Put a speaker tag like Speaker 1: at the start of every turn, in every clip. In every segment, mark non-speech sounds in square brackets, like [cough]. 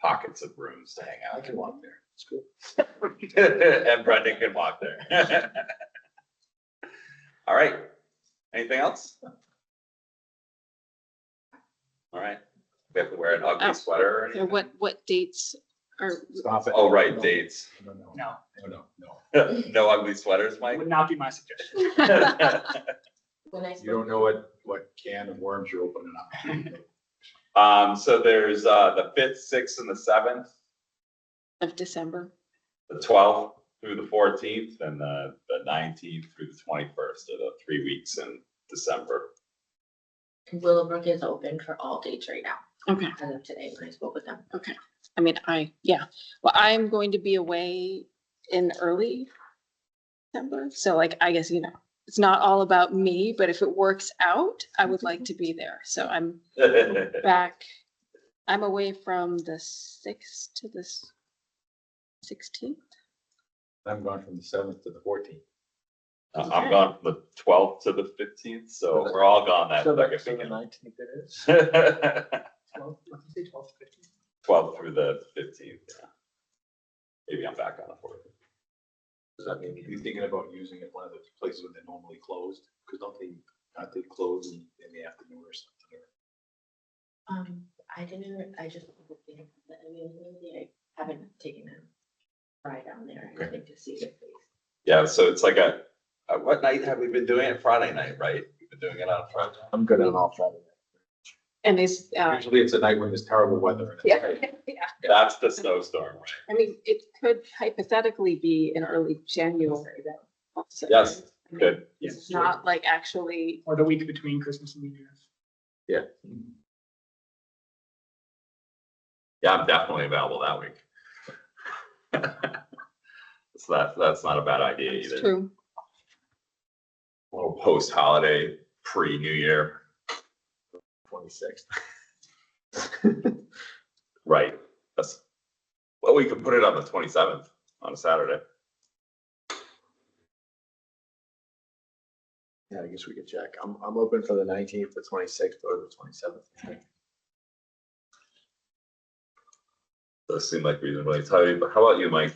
Speaker 1: pockets of rooms to hang out.
Speaker 2: I can walk there. It's cool.
Speaker 1: [laughs] And Brendan could walk there. [laughs] All right, anything else? All right, we have to wear an
Speaker 3: Oh.
Speaker 1: ugly sweater or
Speaker 3: Or
Speaker 1: anything?
Speaker 3: what, what dates are,
Speaker 2: Stop it.
Speaker 1: Oh, right,
Speaker 2: No,
Speaker 1: dates. [laughs]
Speaker 2: No, no,
Speaker 4: No,
Speaker 2: no, no, no.
Speaker 1: No ugly sweaters,
Speaker 4: it
Speaker 1: Mike?
Speaker 4: would not be my suggestion.
Speaker 5: When I
Speaker 2: You don't
Speaker 5: spoke,
Speaker 2: know what, what can of worms you're opening up.
Speaker 1: [laughs] Um, so there's, uh, the fifth, sixth and the seventh,
Speaker 3: of December?
Speaker 1: the twelfth through the fourteenth and the, the nineteenth through the twenty-first are the three weeks in December. [laughs]
Speaker 5: Willowbrook is open for all dates right now,
Speaker 3: Okay,
Speaker 5: as of today when I spoke with them.
Speaker 3: I mean, I, yeah, well, I'm going to be away in early December, so like, I guess, you know, it's not all about me, but if it works out, I would like to be there, so I'm back. I'm away from the sixth to the sixteenth.
Speaker 2: I'm going from the seventh to the fourteenth.
Speaker 1: Uh, I'm gone from the twelfth to the fifteenth, so we're all gone that second weekend.
Speaker 2: nineteenth it is.
Speaker 1: [laughs]
Speaker 4: Twelve, what did you say, twelve to fifteen?
Speaker 1: Twelve through the fifteenth, yeah. Maybe I'm back on the fourth. Does that mean
Speaker 2: You thinking about using it one of the places when they're normally closed? Cause don't they, aren't they closed in, in the afternoon or something? or-
Speaker 5: Um, I didn't, I just, you know, I mean, really, I haven't taken a ride down there, I
Speaker 1: Okay.
Speaker 5: think, to see the place.
Speaker 1: Yeah, so it's like a, uh, what night have we been doing it? Friday night, right? We've been doing it on Friday.
Speaker 2: I'm good on all Friday.
Speaker 3: And it's, uh,
Speaker 2: Usually it's a night when there's terrible weather. and it's
Speaker 3: yeah,
Speaker 2: great.
Speaker 3: yeah.
Speaker 1: That's the snowstorm, right?
Speaker 3: I mean, it could hypothetically be in early January though. also.
Speaker 1: Yes,
Speaker 3: I mean,
Speaker 1: good.
Speaker 3: It's not like actually,
Speaker 4: Or the week between Christmas and New Year's.
Speaker 1: Yeah, I'm definitely available that week. [laughs] So that, that's not a bad idea
Speaker 3: it's
Speaker 1: either.
Speaker 3: true.
Speaker 1: A Little post-holiday, pre-New Year,
Speaker 2: Twenty-sixth.
Speaker 1: right? That's, well, we could put it on the twenty-seventh on a Saturday.
Speaker 2: Yeah, I guess we could check. I'm, I'm open for the nineteenth, the twenty-sixth, or the twenty-seventh.
Speaker 1: Those seem like reasonably tight, but how about you, Mike?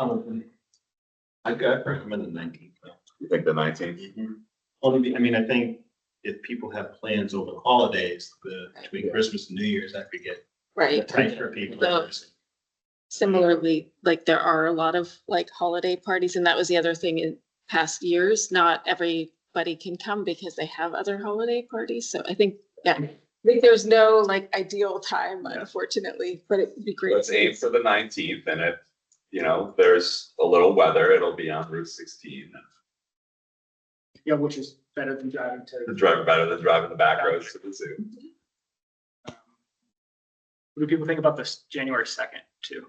Speaker 6: I'm open. I I recommend the nineteenth.
Speaker 1: You think the nineteenth?
Speaker 6: Only, be- I mean, I think if people have plans over the holidays, the, between
Speaker 2: Yeah.
Speaker 6: Christmas and New Year's, that could get
Speaker 3: Right.
Speaker 6: tight for people.
Speaker 3: So- Similarly, like there are a lot of like holiday parties and that was the other thing in past years. Not everybody can come because they have other holiday parties. So I think, yeah, I think there's no like ideal time unfortunately, but it would be great.
Speaker 1: Let's aim for the nineteenth and if, you know, there's a little weather, it'll be on Route sixteen.
Speaker 4: Yeah, which is better than driving to.
Speaker 1: The drive better than driving the back roads to the zoo.
Speaker 4: um, What do people think about this January second too?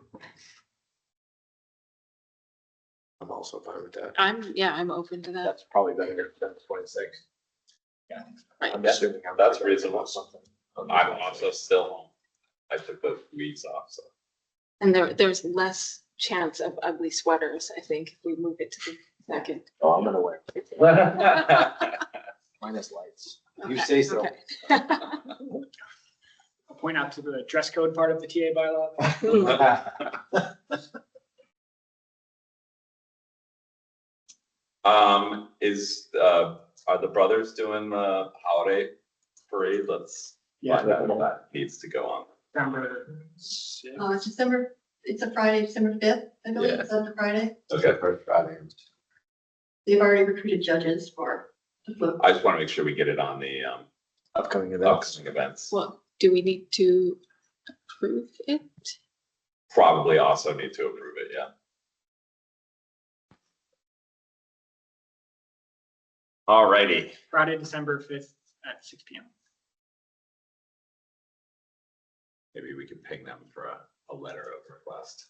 Speaker 2: I'm also fine with that.
Speaker 3: I'm, yeah, I'm open to that.
Speaker 2: That's probably better than the twenty-sixth.
Speaker 4: Yeah.
Speaker 2: I'm
Speaker 1: Yeah,
Speaker 2: assuming. I'm-
Speaker 1: that's reasonable.
Speaker 2: Something.
Speaker 1: I'm also still home. I took the weeds off, so.
Speaker 3: And there, there's less chance of ugly sweaters, I think, if we move it to the second.
Speaker 2: Oh, I'm gonna wear
Speaker 1: [laughs] All
Speaker 2: minus lights.
Speaker 3: Okay,
Speaker 2: You say so.
Speaker 3: okay.
Speaker 4: I'll point out to the dress code part of the TA bylaw.
Speaker 3: Hmm.
Speaker 1: [laughs] Um, is, uh, are the brothers doing the holiday parade? Let's
Speaker 4: Yeah,
Speaker 1: find out if that needs to go on.
Speaker 4: December sixth.
Speaker 7: Uh, it's December, it's a Friday, December fifth, I believe,
Speaker 1: Yeah.
Speaker 7: is that the Friday?
Speaker 1: Okay,
Speaker 7: They've already recruited judges for the flip.
Speaker 1: I just want to make sure we get it on the, um,
Speaker 2: Upcoming events.
Speaker 1: upcoming events.
Speaker 3: Well, do we need to approve it?
Speaker 1: Probably also need to approve it, yeah. Alrighty,
Speaker 4: Friday, December fifth at six P M.
Speaker 1: maybe we can ping them for a, a letter of request.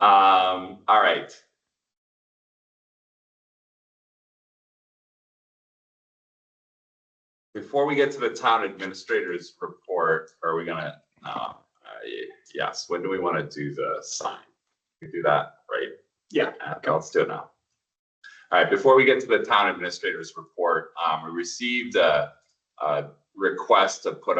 Speaker 1: Um, all right. Before we get to the town administrator's report, are we gonna, no, uh, y- yes, when do we wanna do the sign? We do that, right?
Speaker 4: Yeah.
Speaker 1: Okay, let's do it now. All right, before we get to the town administrator's report, um, we received a, a request to put